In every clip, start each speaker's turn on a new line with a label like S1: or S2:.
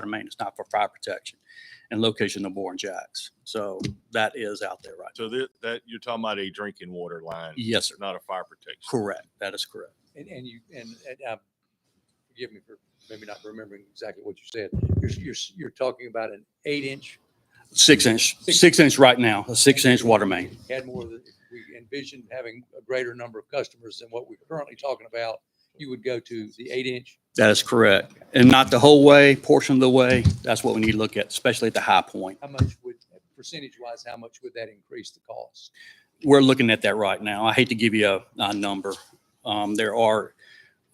S1: for maintenance, not for fire protection, and location of boring jacks. So that is out there right now.
S2: So that, that, you're talking about a drinking water line,
S1: Yes, sir.
S2: not a fire protection.
S1: Correct. That is correct.
S3: And, and you, and, and, um, forgive me for maybe not remembering exactly what you said. You're, you're, you're talking about an eight inch,
S1: Six inch, six inch right now, a six inch water main.
S3: had more than, if we envisioned having a greater number of customers than what we're currently talking about. You would go to the eight inch.
S1: That is correct. And not the whole way, portion of the way. That's what we need to look at, especially at the high point.
S3: How much would, percentage wise, how much would that increase the cost?
S1: We're looking at that right now. I hate to give you a, a number. Um, there are,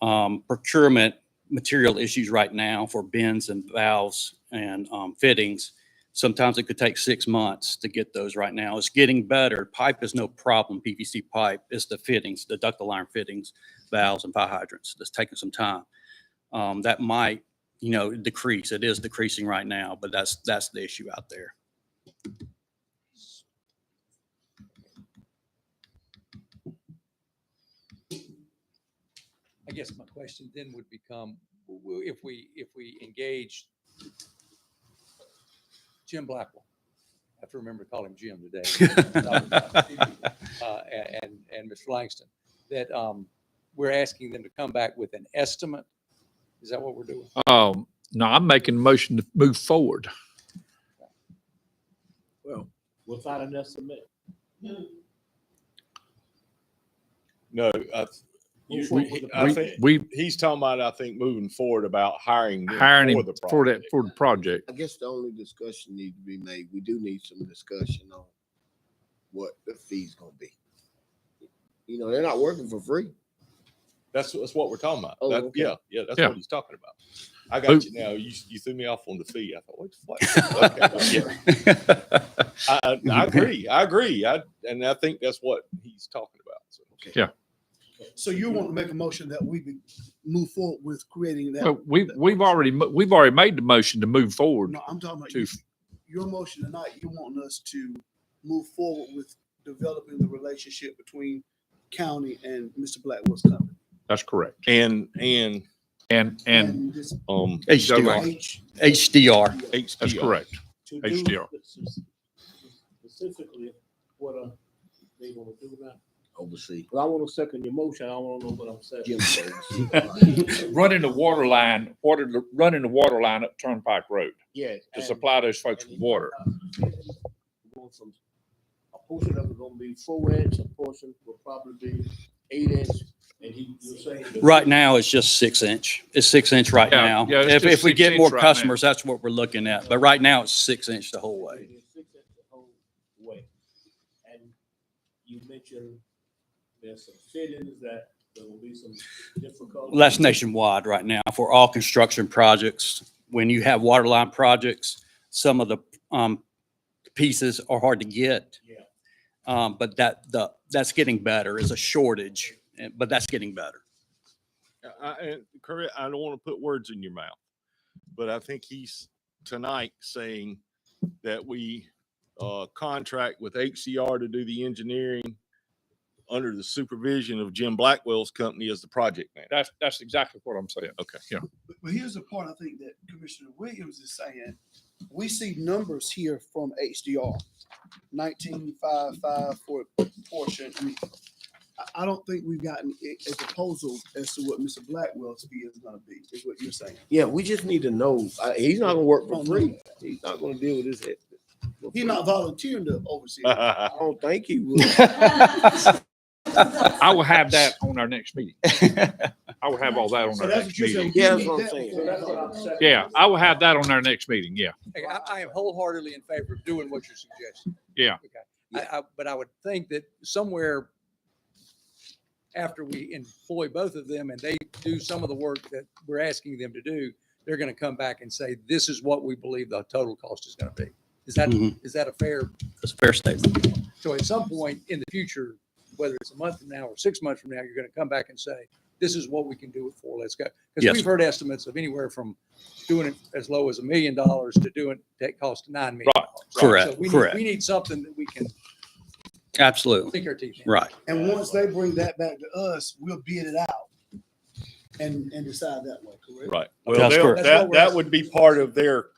S1: um, procurement material issues right now for bins and valves and, um, fittings. Sometimes it could take six months to get those right now. It's getting better. Pipe is no problem, PVC pipe. It's the fittings, the ductile iron fittings, valves and fire hydrants. That's taking some time. Um, that might, you know, decrease. It is decreasing right now, but that's, that's the issue out there.
S3: I guess my question then would become, w- w- if we, if we engage Jim Blackwell, I have to remember to call him Jim today. uh, a- and, and Mr. Langston, that um, we're asking them to come back with an estimate. Is that what we're doing?
S4: Um, no, I'm making a motion to move forward.
S5: Well, without an estimate.
S2: No, I, th- you-
S5: Well, for-
S2: we- I
S4: We-
S2: think,
S4: We
S2: he's talking about, I think, moving forward about hiring. them
S4: hiring him
S2: the
S4: for that,
S2: project.
S4: for the project.
S6: I guess the only discussion need to be made, we do need some discussion on what the fee's gonna be. You know, they're not working for free.
S2: That's, that's what we're talking about.
S6: Oh,
S2: That,
S6: okay.
S2: yeah, yeah, that's
S4: Yeah.
S2: what he's talking about. I
S4: Oh.
S2: got you now. You, you threw me off on the fee. I thought, what the fuck? Okay, yeah. I, I- I agree. I agree. I, and I think that's what he's talking about. So.
S7: So you want to make a motion that we be- move forward with creating that?
S4: Well, we, we've already, mo- we've already made the motion to move forward.
S7: No, I'm talking about
S4: To-
S7: you- your motion tonight, you want us to move forward with developing the relationship between county and Mr. Blackwell's company.
S4: That's correct.
S2: And, and,
S4: And, and
S7: this
S2: um,
S1: HDR,
S7: H-
S1: HDR.
S2: HDR.
S4: that's correct.
S5: to do
S4: HDR.
S5: spec- Specifically, what uh, they gonna do now.
S6: Oversee.
S5: Well, I wanna second your motion, I wanna know what I'm saying.
S6: Jim says.
S4: Running the water line, water, running the water line up Turnpike Road
S5: Yes.
S4: those folks
S5: and- Going from- A portion of it gonna be four inch, a portion will probably be eight inch, and he, you're saying. that-
S1: Right now, it's just six inch. It's six inch right
S4: Yeah,
S1: now.
S4: yeah, it's
S1: If,
S4: just
S1: if we
S4: six
S1: get
S4: inch
S1: more
S4: right now.
S1: customers, that's what we're looking at. But right now, it's six inch the whole way.
S5: It is six inch the whole way. And you mentioned there's some fittings that there will be some difficult.
S1: Well, That's nationwide right now for all construction projects. When you have water line projects, some of the, um, pieces are hard to get.
S5: Yeah.
S1: Um, but that, the, that's getting better. It's a shortage, eh, but that's getting better.
S2: I, I- Curry, I don't want to put words in your mouth, but I think he's tonight saying that we uh, contract with HCR to do the engineering under the supervision of Jim Blackwell's company as the project manager.
S4: That's, that's exactly what I'm saying.
S2: Okay.
S4: Yeah.
S7: But, but here's the part I think that Commissioner Williams is saying. We see numbers here from HDR, nineteen five five for portion. I mean, I, I don't think we've gotten a, a proposal as to what Mr. Blackwell's fee is gonna be, is what you're saying.
S6: Yeah, we just need to know, uh, he's not gonna work for free. He's not gonna deal with this. head- for
S7: He's
S6: free.
S7: not volunteering to oversee. it.
S6: I
S2: I
S6: don't think he will.
S4: I will have that on our next meeting. I will have all that on
S7: So
S4: our
S7: that's
S4: next
S7: what you're saying.
S4: meeting.
S7: We
S6: Yeah, that's
S7: need
S6: what I'm
S7: that
S6: saying.
S7: before we
S5: That's what
S7: vote.
S5: I'm saying.
S4: Yeah, I will have that on our next meeting. Yeah.
S3: Okay, I, I am wholeheartedly in favor of doing what you're suggesting.
S4: Yeah.
S3: Okay. I, I, but I would think that somewhere after we employ both of them and they do some of the work that we're asking them to do, they're gonna come back and say, this is what we believe the total cost is gonna be. Is that,
S1: Mhm.
S3: is that a fair
S1: That's a fair statement.
S3: So at some point in the future, whether it's a month from now or six months from now, you're going to come back and say, this is what we can do it for. Let's go.
S1: Yes.
S3: Because we've heard estimates of anywhere from doing it as low as a million dollars to doing that cost nine million. dollars.
S1: Correct,
S3: So we need-
S1: correct.
S3: We need something that we can
S1: Absolutely.
S3: sink our teeth in.
S1: Right.
S7: And once they bring that back to us, we'll bid it out.
S8: and, and decide that way, correct?
S2: Right.
S7: That's
S2: Well, they'll-
S7: correct.
S2: that, that would be part of their